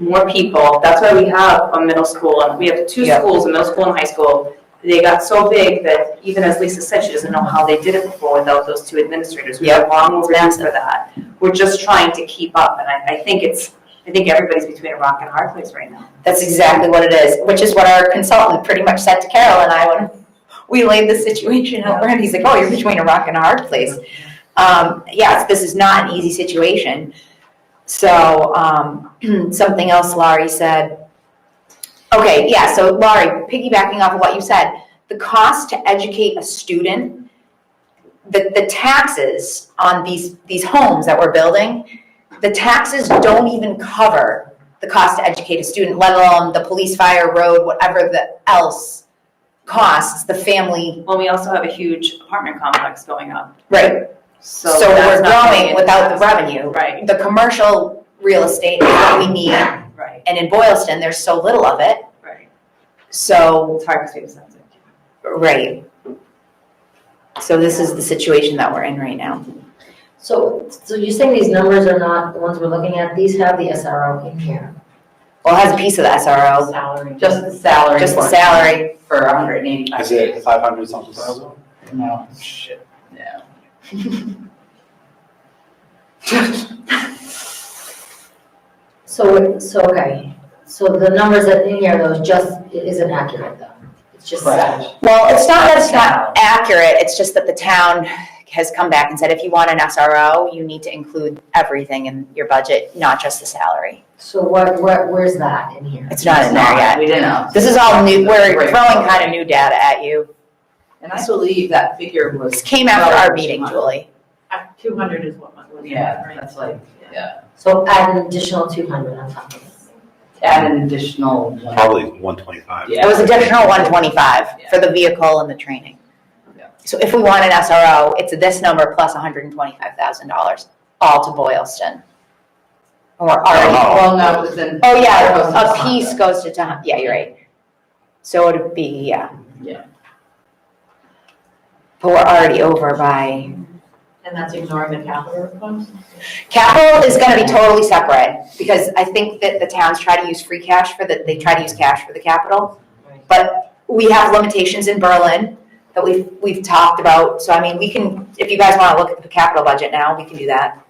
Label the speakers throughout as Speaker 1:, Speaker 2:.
Speaker 1: more people. That's why we have a middle school, and we have two
Speaker 2: Yeah.
Speaker 1: schools, a middle school and high school. They got so big that even as Lisa said, she doesn't know how they did it before without those two administrators. We are long overdue for that. We're just trying to keep up, and I, I think it's, I think everybody's between a rock and a hard place right now.
Speaker 2: That's exactly what it is, which is what our consultant pretty much said to Carol and I when we laid the situation out. And he's like, oh, you're between a rock and a hard place. Um, yes, this is not an easy situation. So, um, something else Laurie said. Okay, yeah, so Laurie, piggybacking off of what you said, the cost to educate a student, the, the taxes on these, these homes that we're building, the taxes don't even cover the cost to educate a student, let alone the police, fire, road, whatever the else costs the family.
Speaker 1: Well, we also have a huge apartment complex going up,
Speaker 2: Right.
Speaker 1: so
Speaker 2: So we're
Speaker 1: that's not
Speaker 2: growing without the revenue.
Speaker 1: Right,
Speaker 2: The commercial real estate is what we need, and
Speaker 1: right,
Speaker 2: in Boylston, there's so little of it,
Speaker 1: right.
Speaker 2: so,
Speaker 1: It's hard to say something.
Speaker 2: right. So this is the situation that we're in right now.
Speaker 3: So, so you're saying these numbers are not the ones we're looking at, these have the SRO in here,
Speaker 2: Well, it has a piece of the SRO,
Speaker 3: salary.
Speaker 4: Just the salary.
Speaker 2: just the
Speaker 4: for-
Speaker 2: salary,
Speaker 4: For a hundred and eighty-five.
Speaker 5: Is it five hundred something thousand?
Speaker 4: No, shit, no.
Speaker 3: So, it- so, okay, so the numbers that in here, those just, it isn't accurate though, it's just
Speaker 4: Correct.
Speaker 3: salary.
Speaker 2: well, it's not that it's not accurate, it's just that the town has come back and said, if you want an SRO, you need to include everything in your budget, not just the salary.
Speaker 3: So what, what, where's that in here?
Speaker 2: It's not in there yet.
Speaker 4: We didn't.
Speaker 2: This is all new, we're
Speaker 4: Right.
Speaker 2: throwing kind of new data at you.
Speaker 4: And I believe that figure
Speaker 2: This
Speaker 4: was,
Speaker 2: came after our meeting, Julie.
Speaker 6: Two hundred is what was it,
Speaker 4: yeah,
Speaker 6: right?
Speaker 4: that's like, yeah,
Speaker 3: So add an additional two hundred on top of this.
Speaker 4: add an additional one.
Speaker 5: Probably one twenty-five.
Speaker 4: Yeah.
Speaker 2: It was additional one twenty-five for the vehicle and the training.
Speaker 4: Yeah.
Speaker 2: So if we want an SRO, it's this number plus hundred and twenty-five thousand dollars, all to Boylston. Or already,
Speaker 5: Oh.
Speaker 4: Well, no, it was in.
Speaker 2: oh
Speaker 4: it was in
Speaker 2: yeah, a
Speaker 4: Sonda.
Speaker 2: piece goes to Tom, yeah, you're right. So it'd be, yeah.
Speaker 4: Yeah.
Speaker 2: But we're already over by,
Speaker 6: And that's ignoring the capital request?
Speaker 2: capital is gonna be totally separate, because I think that the towns try to use free cash for the, they try to use cash for the capital. we have limitations in Berlin that we've, we've talked about, so I mean, we can, if you guys wanna look at the capital budget now, we can do that.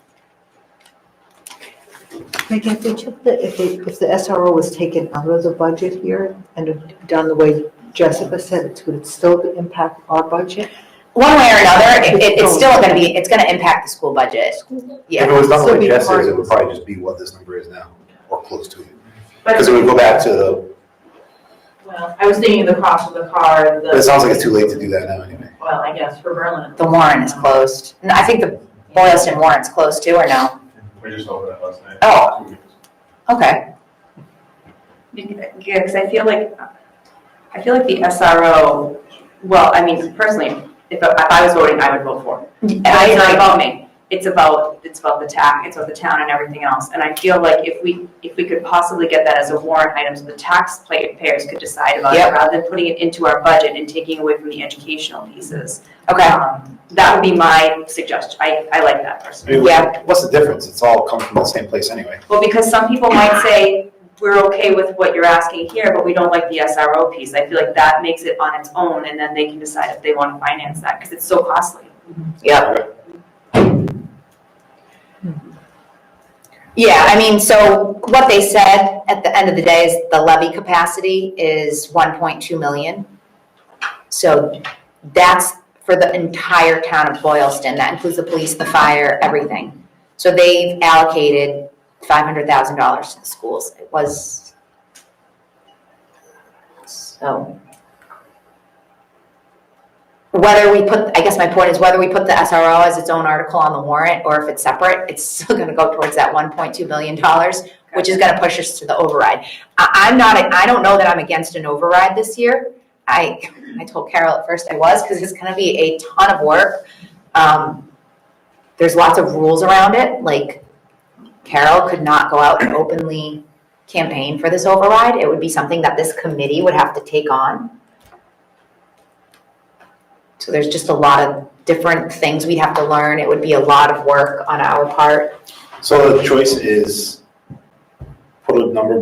Speaker 7: Megan, if they took the, if they, if the SRO was taken out of the budget here and done the way Jessica said, it would it still impact our budget?
Speaker 2: One way or another, it, it- it's still gonna be, it's gonna impact the school budget.
Speaker 5: If it
Speaker 2: Yeah,
Speaker 5: was done
Speaker 7: So
Speaker 5: like
Speaker 7: we-
Speaker 5: Jess is, it would probably just be what this number is now, or close to it.
Speaker 6: But,
Speaker 5: Because it would go back to the,
Speaker 6: well, I was thinking the cost of the car,
Speaker 5: but it
Speaker 6: the,
Speaker 5: sounds like it's too late to do that now anyway.
Speaker 6: well, I guess for Berlin.
Speaker 2: the warrant is closed, and I think the Boylston warrant's closed too, or no?
Speaker 8: We just opened it last night.
Speaker 2: Oh. Okay,
Speaker 1: Yeah, because I feel like, I feel like the SRO, well, I mean, personally, if, I- if I was voting, I would vote for it.
Speaker 2: I
Speaker 1: It's not
Speaker 2: agree.
Speaker 1: about me, it's about, it's about the tax, it's about the town and everything else. And I feel like if we, if we could possibly get that as a warrant item, so the taxpayers could decide about it,
Speaker 2: Yep.
Speaker 1: rather than putting it into our budget and taking away from the educational pieces.
Speaker 2: okay,
Speaker 1: Um, That would be my suggestion, I, I like that personally.
Speaker 5: I mean,
Speaker 2: Yeah.
Speaker 5: What's the difference? It's all come from the same place anyway.
Speaker 1: Well, because some people might say, we're okay with what you're asking here, but we don't like the SRO piece. I feel like that makes it on its own, and then they can decide if they want to finance that, because it's so costly.
Speaker 2: yeah. Yeah, I mean, so what they said at the end of the day is the levy capacity is one point two million. So that's for the entire town of Boylston, that includes the police, the fire, everything. So they've allocated five hundred thousand dollars to the schools, it was. So. Whether we put, I guess my point is whether we put the SRO as its own article on the warrant, or if it's separate, it's still gonna go towards that one point two million dollars, which is gonna push us to the override. I, I'm not, I don't know that I'm against an override this year, I, I told Carol at first I was, because it's gonna be a ton of work. Um, there's lots of rules around it, like Carol could not go out and openly campaign for this override. It would be something that this committee would have to take on. So there's just a lot of different things we'd have to learn. It would be a lot of work on our part.
Speaker 5: So the choice is put a number